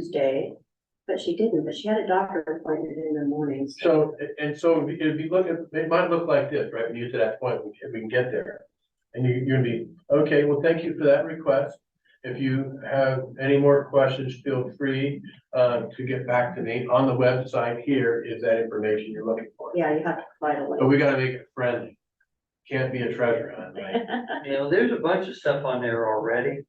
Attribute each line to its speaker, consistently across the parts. Speaker 1: Tuesday, but she didn't, but she had a doctor appointment in the morning.
Speaker 2: So, a- and so if you- if you look at, it might look like this, right, when you get to that point, if we can get there. And you, you're gonna be, okay, well, thank you for that request. If you have any more questions, feel free, uh, to get back to me. On the website here is that information you're looking for.
Speaker 1: Yeah, you have to fight a
Speaker 2: But
Speaker 1: little.
Speaker 2: we gotta make it friendly. Can't be a treasure hunt, right?
Speaker 3: Oh.
Speaker 4: You know, there's a bunch of stuff on there already.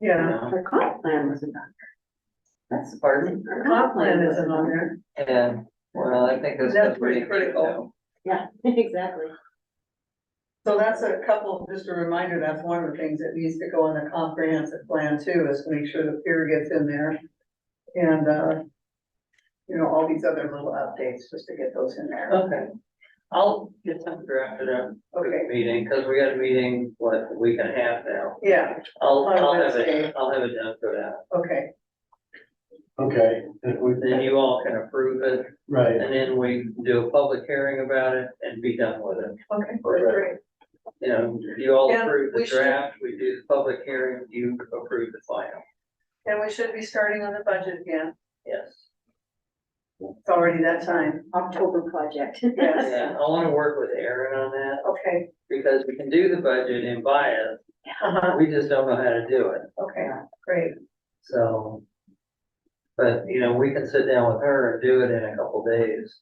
Speaker 3: Yeah.
Speaker 1: Her comp plan wasn't on there. That's.
Speaker 4: Pardon?
Speaker 1: Her
Speaker 3: Comp plan isn't on there.
Speaker 4: Yeah, well, I think that's.
Speaker 3: That's pretty critical.
Speaker 1: Yeah, exactly.
Speaker 3: So that's a couple, just a reminder, that's one of the things that needs to go on the comprehensive plan too, is to make sure the pier gets in there. And, uh, you know, all these other little updates, just to get those in there.
Speaker 4: Okay, I'll get something drafted up for the
Speaker 3: Okay,
Speaker 4: meeting, because we got a meeting, what, a week and a half now.
Speaker 3: yeah,
Speaker 4: I'll,
Speaker 3: On
Speaker 4: I'll have
Speaker 3: Wednesday.
Speaker 4: it, I'll have it done for that.
Speaker 3: okay,
Speaker 2: Okay, if we-
Speaker 4: Then you all can approve it,
Speaker 2: right,
Speaker 4: and then we do a public hearing about it and be done with it.
Speaker 3: okay, that's great.
Speaker 4: You know, you all
Speaker 3: Yeah,
Speaker 4: approve
Speaker 3: we
Speaker 4: the
Speaker 3: should-
Speaker 4: draft, we do the public hearing, you approve the final,
Speaker 3: And we should be starting on the budget again.
Speaker 4: yes.
Speaker 3: It's already that time.
Speaker 1: October project.
Speaker 3: Yes.
Speaker 4: Yeah, I wanna work with Aaron on that,
Speaker 3: Okay,
Speaker 4: because we can do the budget in bias,
Speaker 3: uh-huh,
Speaker 4: we just don't know how to do it,
Speaker 3: okay, great.
Speaker 4: so. But, you know, we can sit down with her and do it in a couple days.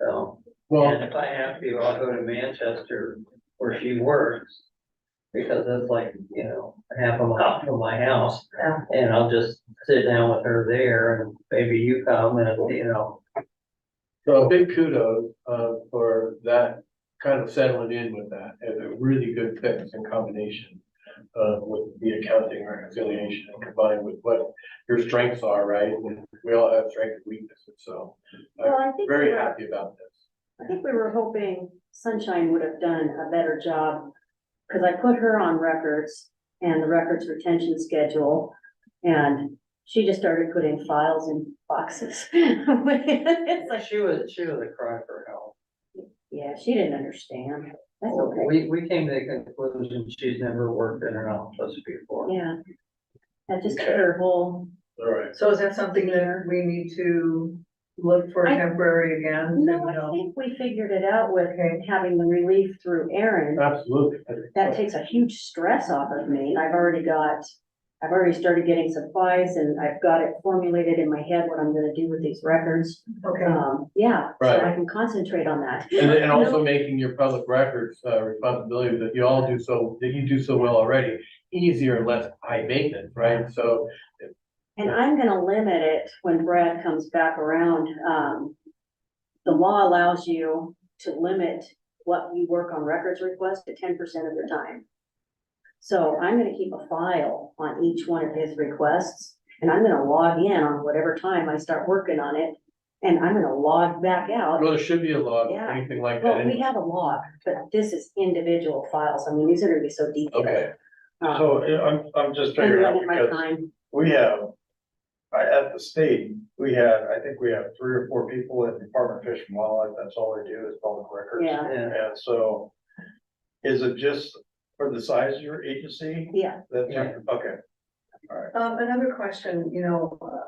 Speaker 4: So,
Speaker 2: well,
Speaker 4: and if I have to, I'll go to Manchester where she works. Because that's like, you know, half a mile from my house,
Speaker 3: Yeah.
Speaker 4: and I'll just sit down with her there, and maybe you come and, you know,
Speaker 2: so big kudos, uh, for that kind of settling in with that as a really good fix and combination. Uh, with the accounting reconciliation and combined with what your strengths are, right? And We all have strengths and weaknesses, so
Speaker 1: Well, I think. we
Speaker 2: very
Speaker 1: were-
Speaker 2: happy about this.
Speaker 1: I think we were hoping Sunshine would have done a better job, because I put her on records and the records retention schedule, and she just started putting files in boxes. It's like,
Speaker 4: she was, she was a cry for help.
Speaker 1: yeah, she didn't understand. That's okay.
Speaker 4: We, we came to the conclusion she's never worked in an office before.
Speaker 1: Yeah. That just took her whole,
Speaker 2: All right,
Speaker 3: So is that something that we need to look for
Speaker 1: I-
Speaker 3: temporary again?
Speaker 1: no, I think we figured it out with
Speaker 3: Okay.
Speaker 1: having the relief through Aaron.
Speaker 2: absolutely.
Speaker 1: that takes a huge stress off of me. I've already got, I've already started getting supplies and I've got it formulated in my head what I'm gonna do with these records.
Speaker 3: Okay.
Speaker 1: Um, yeah, so I
Speaker 2: Right.
Speaker 1: can concentrate on that.
Speaker 2: And, and also making your public records, uh, responsibility that you all do so, that you do so well already, easier and less high maintenance, right? So,
Speaker 1: And I'm gonna limit it when Brad comes back around. Um, the law allows you to limit what you work on records requests to ten percent of your time. So I'm gonna keep a file on each one of his requests and I'm gonna log in on whatever time I start working on it. And I'm gonna log back out.
Speaker 2: well, there should be a law,
Speaker 1: Yeah.
Speaker 2: anything like that.
Speaker 1: Well, we have a log, but this is individual files. I mean, these are gonna be so detailed.
Speaker 2: Okay,
Speaker 1: Um,
Speaker 5: So yeah, I'm, I'm just
Speaker 1: I'm
Speaker 5: figuring out
Speaker 1: limiting my
Speaker 5: because
Speaker 1: time.
Speaker 5: we have, I, at the state, we had, I think we have three or four people in Department of Fish and Wildlife, that's all they do is public records.
Speaker 1: Yeah,
Speaker 4: Yeah.
Speaker 5: And so is it just for the size of your agency?
Speaker 1: yeah.
Speaker 5: That's,
Speaker 4: Yeah.
Speaker 5: okay.
Speaker 3: Um, another question, you know, uh,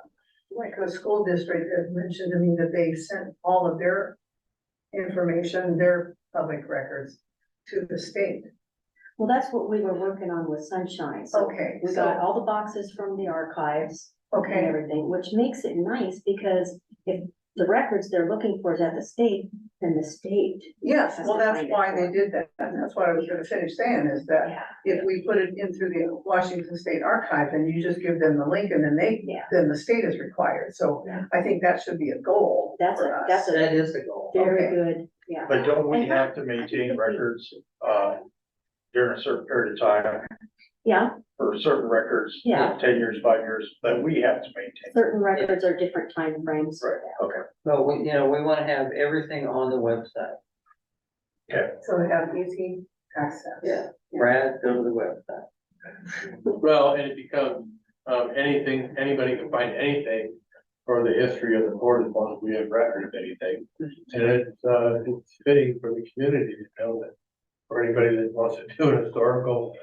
Speaker 3: like the school district has mentioned to me that they sent all of their information, their public records to the state.
Speaker 1: Well, that's what we were working on with Sunshine. So
Speaker 3: Okay,
Speaker 1: we got
Speaker 3: so,
Speaker 1: all the boxes from the archives and
Speaker 3: okay,
Speaker 1: everything, which makes it nice because if the records they're looking for is at the state, then the state.
Speaker 3: yes, well, that's
Speaker 1: That's
Speaker 3: why
Speaker 1: fine.
Speaker 3: they did that, and that's what I was gonna finish saying, is that
Speaker 1: Yeah.
Speaker 3: if we put it in through the Washington State Archive, and you just give them the link, and then they,
Speaker 1: Yeah.
Speaker 3: then the state is required, so
Speaker 1: Yeah.
Speaker 3: I think that should be a goal
Speaker 1: That's
Speaker 3: for
Speaker 1: a-
Speaker 3: us.
Speaker 1: that's
Speaker 4: That is the goal.
Speaker 1: Very good, yeah.
Speaker 5: But don't we
Speaker 1: And-
Speaker 5: have to maintain records, uh, during a certain period of time
Speaker 1: Yeah,
Speaker 5: for certain records?
Speaker 1: Yeah.
Speaker 5: Ten years, five years, that we have to maintain.
Speaker 1: certain records are different timeframes.
Speaker 5: Right, okay.
Speaker 4: So we, you know, we wanna have everything on the website.
Speaker 3: So they have easy access.
Speaker 4: Brad, go to the website.
Speaker 2: well, and it becomes, um, anything, anybody can find anything for the history of the board as long as we have record of anything. And it's, uh, it's fitting for the community to know that, or anybody that wants to do a historical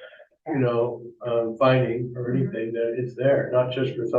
Speaker 2: you know, um, finding or anything, that it's there, not just for some